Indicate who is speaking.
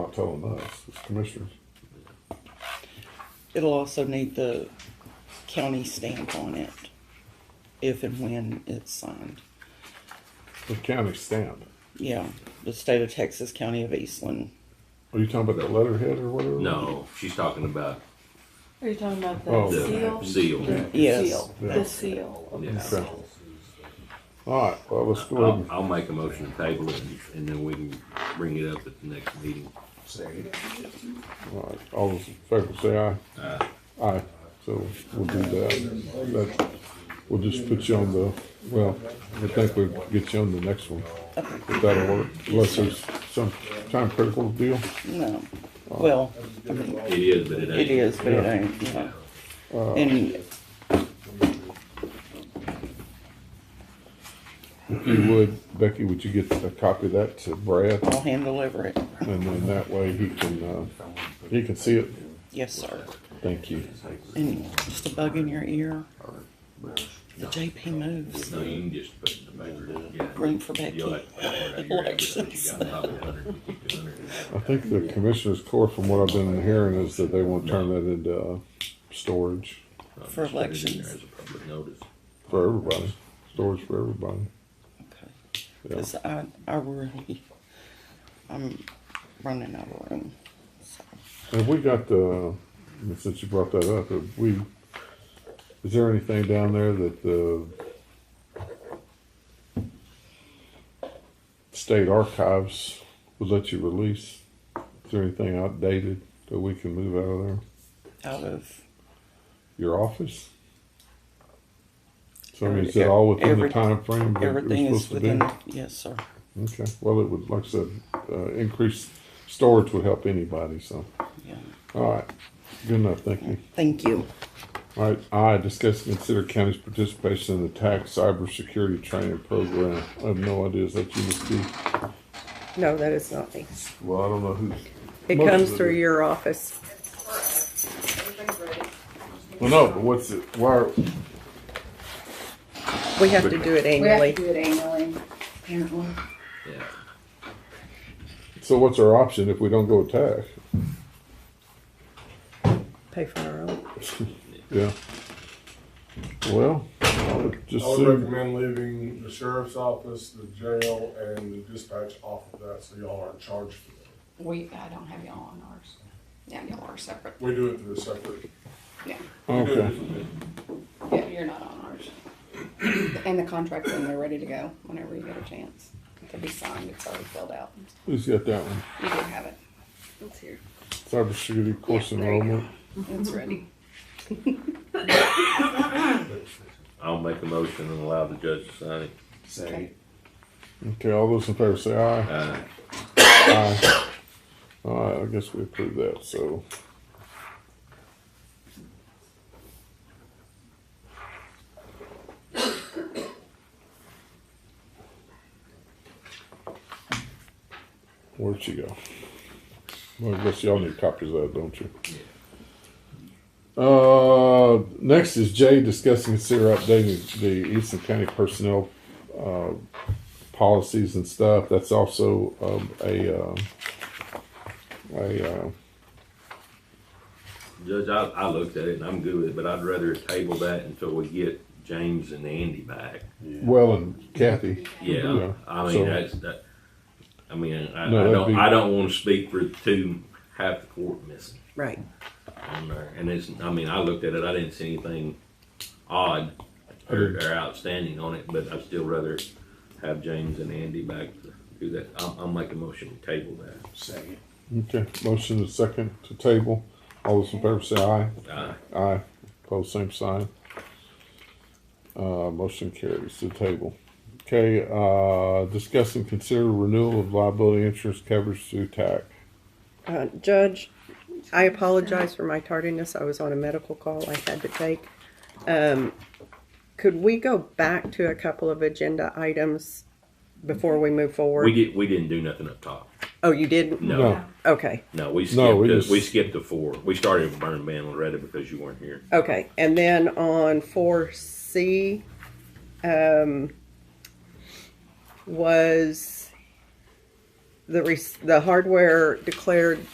Speaker 1: not telling us, it's commissioners.
Speaker 2: It'll also need the county stamp on it if and when it's signed.
Speaker 1: The county stamp.
Speaker 2: Yeah, the state of Texas, county of Eastland.
Speaker 1: Are you talking about that letterhead or whatever?
Speaker 3: No, she's talking about
Speaker 4: Are you talking about the
Speaker 1: Oh,
Speaker 4: seal?
Speaker 3: the seal.
Speaker 4: The
Speaker 2: Yes.
Speaker 4: seal.
Speaker 1: Yeah.
Speaker 4: The seal. of
Speaker 3: Yeah.
Speaker 4: the seal.
Speaker 1: All right, well, let's go ahead
Speaker 3: I'll,
Speaker 1: and,
Speaker 3: I'll make a motion to table it and- and then we can bring it up at the next meeting.
Speaker 1: all right, all those in favor say aye. Aye. Aye, so we'll do that. That, we'll just put you on the, well, I think we'll get you on the next one. If that'll work, unless there's some time critical deal.
Speaker 2: No, well, I mean,
Speaker 3: It is, but it ain't.
Speaker 2: it is, but it ain't, yeah. And
Speaker 1: If you would, Becky, would you get a copy of that to Brad?
Speaker 2: I'll hand deliver it.
Speaker 1: And then that way he can, uh, he can see it.
Speaker 2: Yes, sir.
Speaker 1: Thank you.
Speaker 2: And just a bug in your ear. The JP moves.
Speaker 3: No, you can just put it in the paper, yeah.
Speaker 2: Room for Becky.
Speaker 3: You'll have to work out your average, but you got probably 100, you keep 200.
Speaker 1: I think the commissioner's court, from what I've been hearing, is that they want to turn that into uh, storage
Speaker 3: I'll just
Speaker 2: For
Speaker 3: put it in
Speaker 2: elections.
Speaker 3: there As a public notice.
Speaker 1: for everybody, storage for everybody.
Speaker 2: Okay.
Speaker 1: Yeah.
Speaker 2: Cause I, I really, I'm running out of room. So,
Speaker 1: Have we got the, since you brought that up, have we, is there anything down there that the state archives would let you release? Is there anything outdated that we can move out of there?
Speaker 2: Out of.
Speaker 1: Your office? So I mean, is it all within the
Speaker 2: Every-
Speaker 1: timeframe that
Speaker 2: Everything
Speaker 1: you're
Speaker 2: is
Speaker 1: supposed to
Speaker 2: within,
Speaker 1: do?
Speaker 2: yes, sir.
Speaker 1: Okay, well, it would, like I said, uh, increase storage would help anybody, so,
Speaker 2: Yeah.
Speaker 1: all right. Good enough, thank you.
Speaker 2: Thank you.
Speaker 1: All right, I discuss and consider county's participation in the tax cybersecurity training program. I have no idea, is that you, Ms. D?
Speaker 5: No, that is not me.
Speaker 1: Well, I don't know who's.
Speaker 5: It
Speaker 1: most
Speaker 5: comes
Speaker 1: of
Speaker 5: through
Speaker 1: it-
Speaker 5: your office.
Speaker 1: Well, no, but what's it, why, are-
Speaker 5: We have to do it
Speaker 6: We have to
Speaker 5: annually.
Speaker 6: do it annually, apparently.
Speaker 3: Yeah.
Speaker 1: so what's our option if we don't go with tax?
Speaker 5: Pay for our own.
Speaker 1: Yeah. Well, I would just
Speaker 7: I would
Speaker 1: assume-
Speaker 7: recommend leaving the sheriff's office, the jail, and the dispatch off of that, so y'all aren't charged for that.
Speaker 6: We, I don't have y'all on ours. Yeah, y'all are separate.
Speaker 7: We do it through a separate.
Speaker 6: Yeah,
Speaker 1: Okay.
Speaker 6: yeah, you're not on ours. And the contract, when they're ready to go, whenever you get a chance. It'll be signed, it's already filled out.
Speaker 1: Who's got that one?
Speaker 6: You do have it. It's here.
Speaker 1: Cybersecurity course
Speaker 6: Yeah, there you go.
Speaker 1: enrollment.
Speaker 6: It's ready.
Speaker 3: I'll make a motion and allow the judge to sign it.
Speaker 6: Okay.
Speaker 1: Okay, all those in favor say aye.
Speaker 3: Uh,
Speaker 1: Aye. All right, I guess we approve that, so. Where'd she go? Well, I guess y'all need copies of that, don't you? Uh, next is Jay discussing consider updating the Eastern County personnel uh, policies and stuff. That's also um, a um a uh,
Speaker 3: Judge, I, I looked at it and I'm good with it, but I'd rather table that until we get James and Andy back.
Speaker 1: well and Kathy.
Speaker 3: Yeah, I
Speaker 1: so-
Speaker 3: mean, that's, that, I mean, I, I
Speaker 1: No, that'd
Speaker 3: don't,
Speaker 1: be-
Speaker 3: I don't wanna speak for two, half the court missing
Speaker 5: Right.
Speaker 3: on there. And it's, I mean, I looked at it, I didn't see anything odd or, or outstanding on it, but I'd still rather have James and Andy back to do that. I'll, I'll make a motion to table that.
Speaker 1: Okay, motion to second to table. All those in favor say aye.
Speaker 3: Uh,
Speaker 1: Aye. Pose same sign. Uh, motion carries to table. Okay, uh, discuss and consider renewal of liability insurance coverage through TAC.
Speaker 5: Uh, Judge, I apologize for my tardiness. I was on a medical call I had to take. Um, could we go back to a couple of agenda items before we move forward?
Speaker 3: we did, we didn't do nothing up top.
Speaker 5: Oh, you didn't?
Speaker 3: No,
Speaker 5: Okay.
Speaker 3: no, we
Speaker 1: No, we
Speaker 3: skipped,
Speaker 1: just-
Speaker 3: the- we skipped the four. We started with Burn Man Loretta because you weren't here.
Speaker 5: Okay, and then on four C, um, was the, res- the hardware declared